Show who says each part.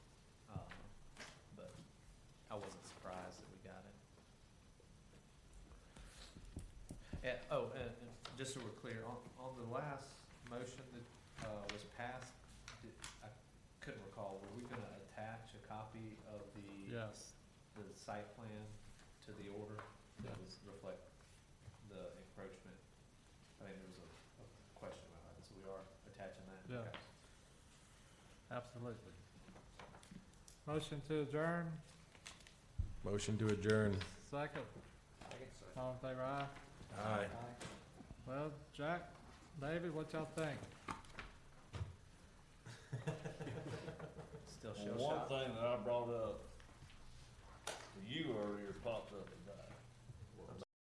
Speaker 1: Um, Eh, oh, and, and just so we're clear, on, on the last motion that, uh, was passed, did, I couldn't recall, were we gonna attach a copy of the
Speaker 2: Yes.
Speaker 1: the site plan to the order that was reflect the encroachment? I think there was a, a question about that, so we are attaching that.
Speaker 2: Yeah.
Speaker 1: Okay.
Speaker 2: Absolutely. Motion to adjourn,
Speaker 3: Motion to adjourn.
Speaker 2: second, all in favor, aye.
Speaker 3: Aye.
Speaker 2: Well, Jack, David, what y'all think?
Speaker 1: Still
Speaker 4: Well,
Speaker 1: shell
Speaker 4: One
Speaker 1: shocked.
Speaker 4: thing that I brought up to you earlier popped up